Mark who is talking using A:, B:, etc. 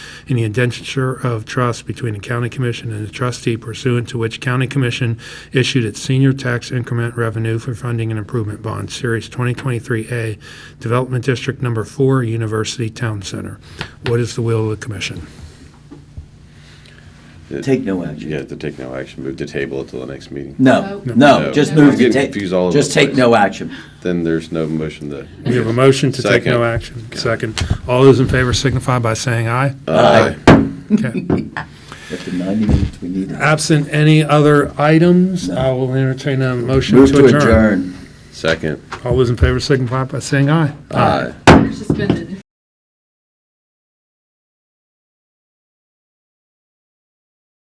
A: in the indenture of trust between the county commission and the trustee pursuant to which county commission issued its senior tax increment revenue for funding and improvement bond, Series 2023A, Development District Number 4, University Town Center. What is the will of the commission?
B: Take no action.
C: You have to take no action, move to table it till the next meeting.
B: No,
A: No.
B: no, just
C: No.
B: move to
C: Get
B: take,
C: confused all over
B: just
C: the
B: take
C: place.
B: no action.
C: Then there's no motion to.
A: We have a motion to take no action. Second. All those in favor signify by saying aye.
C: Aye.
A: Okay.
B: After 90 minutes, we need it.
A: Absent any other items, I will entertain a motion
B: Move
A: to adjourn.
B: adjourn.
C: Second.
A: All those in favor signify by saying aye.
C: Aye.
D: Suspended.